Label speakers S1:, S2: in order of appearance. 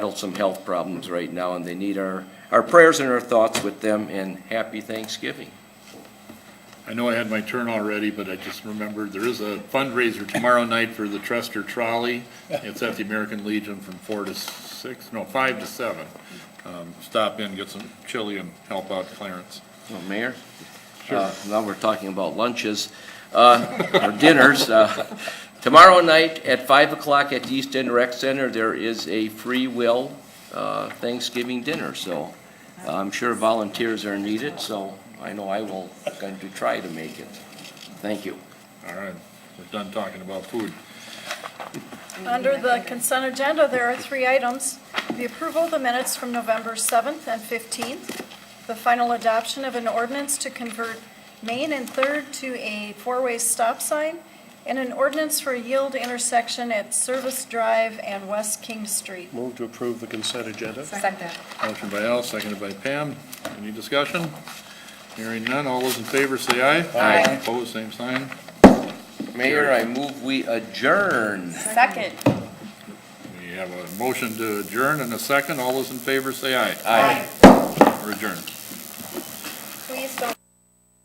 S1: battle some health problems right now, and they need our, our prayers and our thoughts with them, and happy Thanksgiving.
S2: I know I had my turn already, but I just remembered, there is a fundraiser tomorrow night for the Trester Trolley. It's at the American Legion from four to six, no, five to seven. Um, Stop in, get some chili and help out Clarence.
S1: Well, Mayor? uh, Now we're talking about lunches, uh, or dinners. uh, Tomorrow night at 5 o'clock at the East End Rec Center, there is a free will uh, Thanksgiving dinner, so I'm sure volunteers are needed, so I know I will, going to try to make it. Thank you.
S2: All right, we're done talking about food.
S3: Under the consent agenda, there are three items. The approval of the minutes from November 7th and 15th, the final adoption of an ordinance to convert Main and Third to a four-way stop sign, and an ordinance for a yield intersection at Service Drive and West King Street.
S4: Move to approve the consent agenda.
S5: Second.
S2: Motion by Al, seconded by Pam. Any discussion? Hearing none, all those in favor say aye.
S5: Aye.
S2: Opposed, same sign.
S1: Mayor, I move we adjourn.
S3: Second.
S2: We have a motion to adjourn and a second. All those in favor say aye.
S1: Aye.
S2: We're adjourned.